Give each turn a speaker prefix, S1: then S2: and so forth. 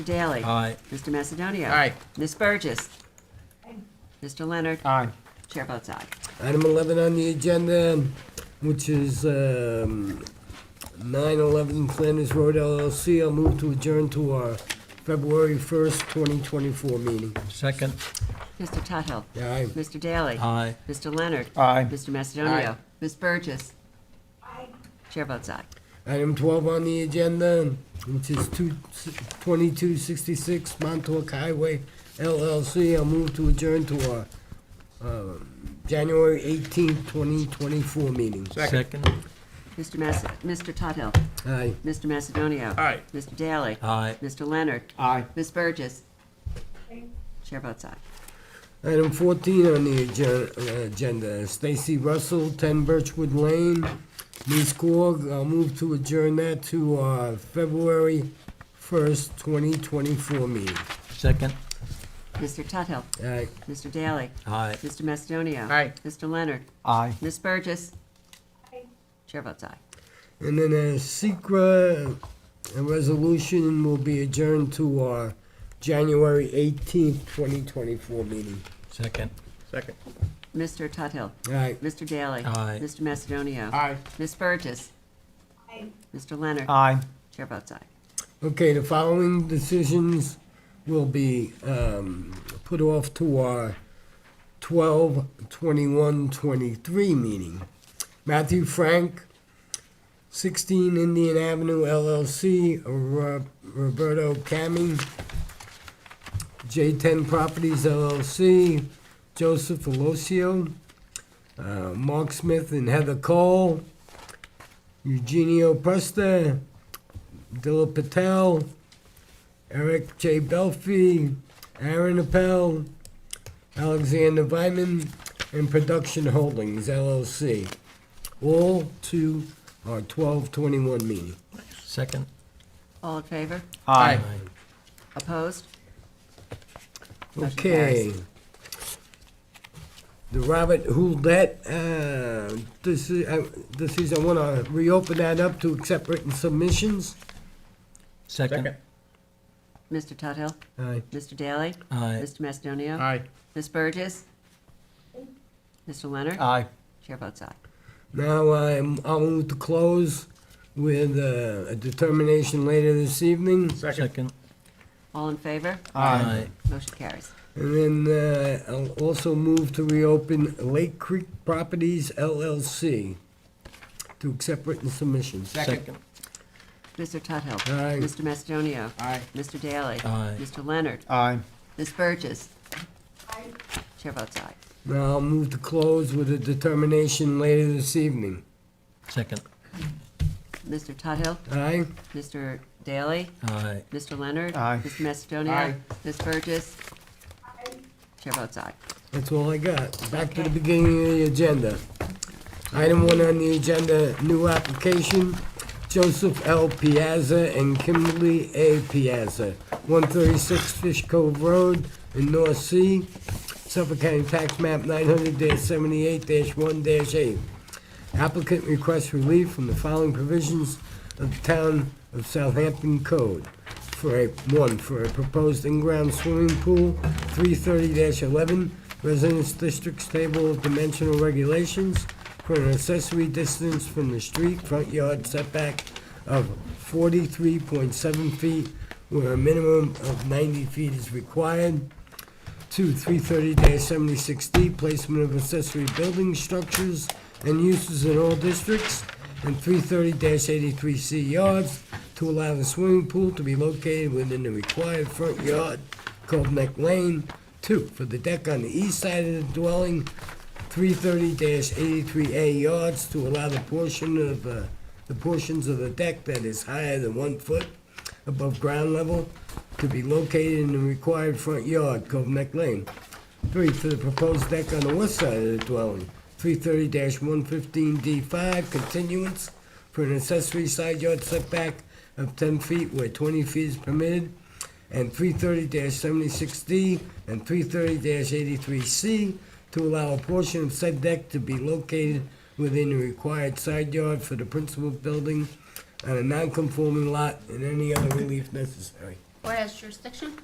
S1: Mr. Daly,
S2: Aye.
S1: Mr. Macedonia.
S3: Aye.
S1: Ms. Burgess. Mr. Leonard.
S3: Aye.
S1: Chair votes aye.
S4: Item 11 on the agenda, which is um, 9/11 Flanders Road LLC. I'll move to adjourn to our February 1st, 2024 meeting.
S2: Second,
S1: Mr. Tuttle.
S4: Aye.
S1: Mr. Daly.
S2: aye.
S1: Mr. Leonard.
S3: Aye.
S1: Mr. Macedonia.
S3: Aye.
S1: Ms. Burgess. Chair votes aye.
S4: Item 12 on the agenda, which is 2 2266 Montauk Highway LLC. I'll move to adjourn to our um, January 18th, 2024 meeting.
S2: Second,
S1: Mr. Mas, Mr. Tuttle.
S4: Aye.
S1: Mr. Macedonia.
S3: Aye.
S1: Mr. Daly.
S2: aye.
S1: Mr. Leonard.
S3: Aye.
S1: Ms. Burgess. Chair votes aye.
S4: Item 14 on the agen- uh, agenda, Stacy Russell, 10 Birchwood Lane, Ms. Gorg. I'll move to adjourn that to our February 1st, 2024 meeting.
S2: Second,
S1: Mr. Tuttle.
S4: Aye.
S1: Mr. Daly.
S2: aye.
S1: Mr. Macedonia.
S3: Aye.
S1: Mr. Leonard.
S3: Aye.
S1: Ms. Burgess. Chair votes aye.
S4: And then a secret a resolution will be adjourned to our January 18th, 2024 meeting.
S2: Second,
S3: Second.
S1: Mr. Tuttle.
S4: Aye.
S1: Mr. Daly.
S2: Aye.
S1: Mr. Macedonia.
S3: Aye.
S1: Ms. Burgess. Mr. Leonard.
S3: Aye.
S1: Chair votes aye.
S4: Okay, the following decisions will be um, put off to our 12, 21, 23 meeting. Matthew Frank, 16 Indian Avenue LLC, Ro- Roberto Cami, J10 Properties LLC, Joseph Alosio, uh, Mark Smith and Heather Cole, Eugenio Presta, Dilip Patel, Eric J. Belfi, Aaron Appel, Alexander Vyman, and Production Holdings LLC. All to our 1221 meeting.
S2: second,
S1: All in favor?
S3: Aye.
S2: aye.
S1: Opposed? Motion
S4: Okay. The Robert Hulett, uh, this is, I- this is, I want to reopen that up to accept written submissions.
S2: Second,
S3: Second.
S1: Mr. Tuttle.
S4: Aye.
S1: Mr. Daly.
S2: aye.
S1: Mr. Macedonia.
S3: Aye.
S1: Ms. Burgess. Mr. Leonard.
S3: Aye.
S1: Chair votes aye.
S4: Now, I'm, I'll move to close with uh, a determination later this evening.
S3: Second.
S2: Second,
S1: All in favor?
S2: aye.
S1: Motion carries.
S4: And then uh, I'll also move to reopen Lake Creek Properties LLC to accept written submissions.
S2: Second,
S1: Mr. Tuttle.
S4: Aye.
S1: Mr. Macedonia.
S3: Aye.
S1: Mr. Daly.
S2: Aye.
S1: Mr. Leonard.
S3: Aye.
S1: Ms. Burgess. Chair votes aye.
S4: Now I'll move to close with a determination later this evening.
S2: second,
S1: Mr. Tuttle.
S4: Aye?
S1: Mr. Daly.
S2: aye.
S1: Mr. Leonard?
S3: Aye.
S1: Mr. Macedonia?
S3: Aye.
S1: Ms. Burgess? Chair votes aye.
S4: That's all I got. Back to
S1: Okay.
S4: the beginning of the agenda. Item one on the agenda, new application, Joseph L. Piazza and Kimberly A. Piazza, 136 Fish Cove Road in North Sea, Suffolk County Tax Map 900-78-1-8. Applicant requests relief from the following provisions of the Town of Southampton Code. For a, one, for a proposed in-ground swimming pool, 330-11, Residence District's Table of Dimensional Regulations, for an accessory distance from the street front yard setback of 43.7 feet, where a minimum of 90 feet is required. Two, 330-76D, placement of accessory building structures and uses in all districts, and 330-83C yards to allow the swimming pool to be located within the required front yard, called Neck Lane. Two, for the deck on the east side of the dwelling, 330-83A yards to allow the portion of, uh, the portions of the deck that is higher than one foot above ground level to be located in the required front yard, Cove Neck Lane. Three, for the proposed deck on the west side of the dwelling, three thirty one fifteen D five, continuance for an accessory side yard setback of ten feet where twenty feet is permitted, and three thirty seventy-six D and three thirty eighty-three C to allow a portion of said deck to be located within the required side yard for the principal building on a non-conforming lot and any other relief necessary.
S3: or has jurisdiction